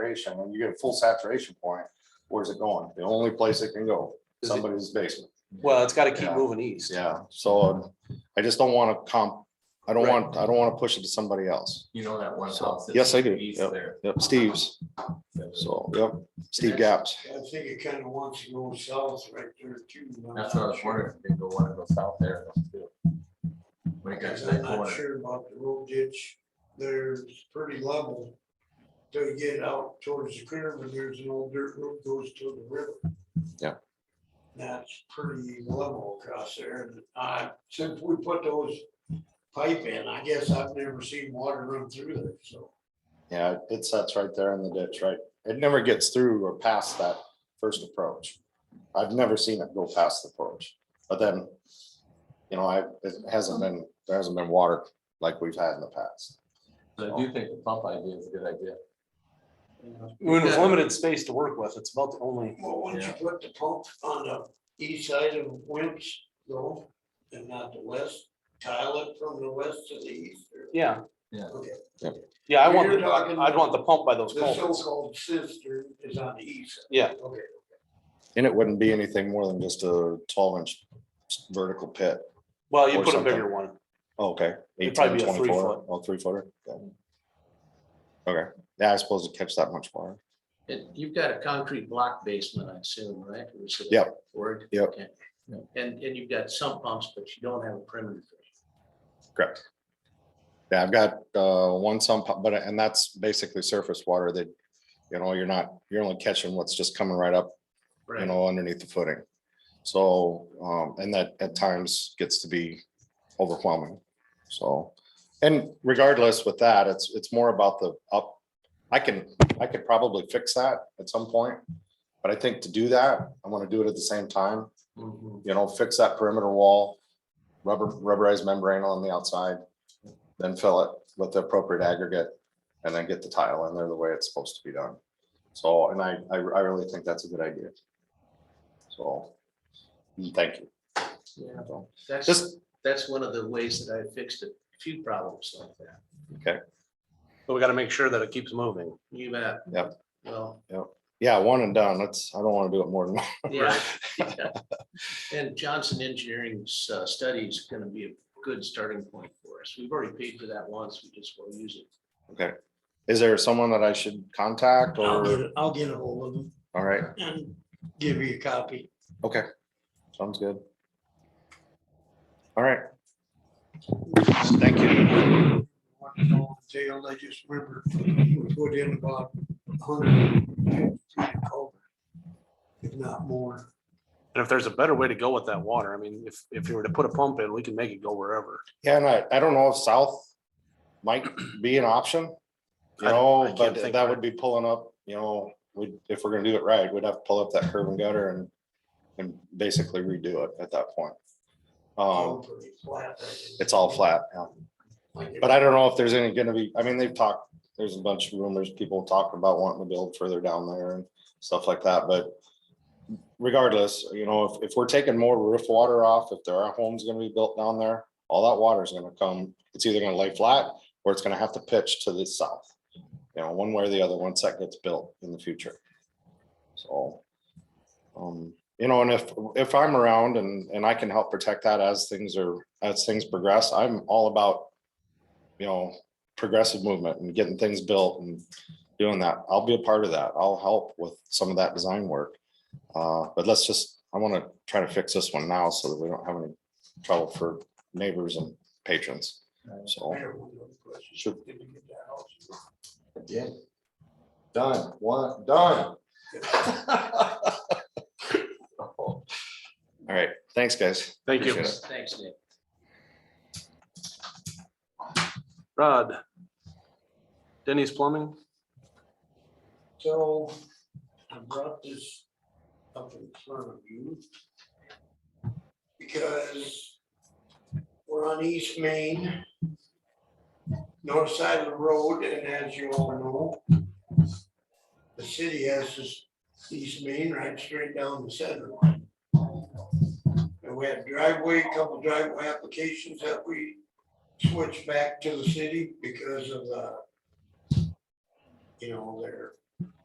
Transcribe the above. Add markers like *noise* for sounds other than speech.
saturation, when you get a full saturation point, where's it going? The only place it can go, Is it- somebody's basement. Well, it's gotta keep Yeah. moving east. Yeah, so um, I just don't wanna comp, I don't Right. want, I don't wanna push it to somebody else. You know that one So, house. that's yes, I do, east yep. there. Yep, Steve's, so, yep, Steve Gaps. I think it kind of wants to go south right there too. and I'm That's what I not was sure- wondering, if they go one of those out there. When it gets to that I'm not corner, sure about the road ditch. There's pretty level. Till you get out towards the curve and there's an old dirt road goes to the river. Yeah. That's pretty level across there. And I, since we put those pipe in, I guess I've never seen water run through there, so. Yeah, it sets right there in the ditch, right? It never gets through or past that first approach. I've never seen it go past the approach, but then, you know, I, it hasn't been, there hasn't been water like we've had in the past. So I do think the pump idea is a good idea. When with limited space to work with, it's about the only, Well, once you put the pump on the east side of Wimps though, and not the west, tile it from the west to the east. or yeah. Yeah. Okay. Yep. Yeah, I You're want, the- talking- I'd want the pump by those The culverts. so-called sister is on the east. side. Yeah. Okay. And it wouldn't be anything more than just a twelve inch vertical pit. Well, you or put a something. bigger one. Okay. It'd probably 18, be a three 24, foot. Oh, three footer. Yeah. Okay, yeah, I suppose to catch that much water. And you've got a concrete block basement, I assume, right? It was a Yep. Word? Yep. Okay. Yep. And, and you've got sump pumps, but you don't have a perimeter. Correct. Yeah, I've got uh, one sump, pump, but, and that's basically surface water that, you know, you're not, you're only catching what's just coming right up, you Right. know, underneath the footing. So, um, and that at times gets to be overwhelming, so. And regardless with that, it's, it's more about the up, I can, I could probably fix that at some point. But I think to do that, I want to do it at the same time Mm-hmm. Mhm. you know, fix that perimeter wall, rubber, rubberized membrane on the outside, then fill it with the appropriate aggregate, and then get the tile in there the way it's supposed to be done. So, and I, I, I really think that's a good idea. So, mm, thank you. Yeah. So, That's, Just, that's one of the ways that I fixed a few problems like that. But we gotta make sure that it keeps moving. You bet. Yep. *laughs* Well, yeah, one and done, that's, I don't want to do it more than, yeah. And Johnson Engineering's uh, study is going to be a good starting point for us. We've already paid for that once. We just will use *laughs* it. okay. Is there someone that I should contact I'll or, get, I'll get a hold of them all right, and give you a copy. okay, sounds good. All right, Thank you. Jail, I just remember we put in about a hundred and fifty culvert, if not more. And if there's a better way to go with that water, I mean, if, if you were to put a pump in, we can make it go wherever. Yeah, and I, I don't know if south might be an option. You I- I know, can't but think that of would be pulling up, you know, we, if we're gonna do it right, we'd have to pull up that curb and gutter and, and basically redo it at that point. Um, Pretty flat. it's all flat now. Like it But I don't know if there's any gonna be, I mean, they've talked, there's a bunch of rumors, people talking about wanting to build further down there and stuff like that, but. Regardless, you know, if, if we're taking more roof water off, if there are homes gonna be built down there, all that water is gonna come, it's either gonna lay flat. Or it's gonna have to pitch to the south, you know, one way or the other, once that gets built in the future. So. Um, you know, and if, if I'm around and, and I can help protect that as things are, as things progress, I'm all about you know, progressive movement and getting things built and doing that. I'll be a part of that. I'll help with some of that design work. Uh, but let's just, I want to try to fix this one now so that we don't have any trouble for neighbors and patrons. So, Mayor, one other question. Sure. Did we get that house? yeah. Done, one, done. All right, thanks, guys. Thank you. Appreciate Thanks, Nick. Rod. Denny's Plumbing, So I brought this up in front of you. Because we're on East Main, north side of the road, and as you all know, the city has this East Main right straight down the center line. And we had driveway, couple driveway applications that we switched back to the city because of the, you know, their